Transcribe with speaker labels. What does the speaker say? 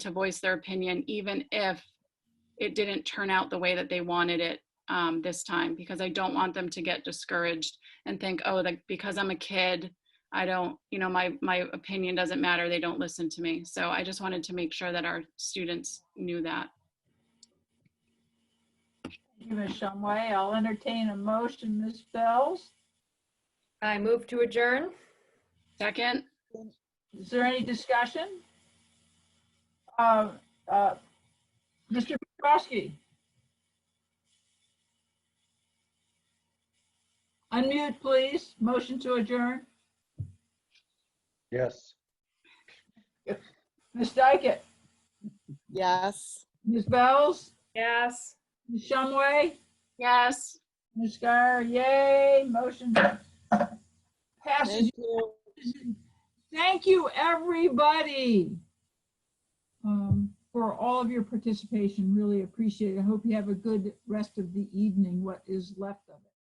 Speaker 1: to voice their opinion, even if it didn't turn out the way that they wanted it um, this time, because I don't want them to get discouraged and think, oh, like because I'm a kid, I don't, you know, my my opinion doesn't matter. They don't listen to me. So I just wanted to make sure that our students knew that.
Speaker 2: Thank you, Ms. Shumway. I'll entertain a motion, Ms. Bells.
Speaker 3: I move to adjourn.
Speaker 1: Second,
Speaker 2: Is there any discussion? Uh, uh, Mr. Petrowski? Unmute, please. Motion to adjourn.
Speaker 4: Yes.
Speaker 2: Ms. Dykett?
Speaker 5: Yes.
Speaker 2: Ms. Bells?
Speaker 3: Yes.
Speaker 2: Ms. Shumway?
Speaker 1: yes.
Speaker 2: Ms. Guyer, yay, motion passes.
Speaker 5: Thank you.
Speaker 2: Thank you, everybody, um, for all of your participation. Really appreciate it. I hope you have a good rest of the evening, what is left of it.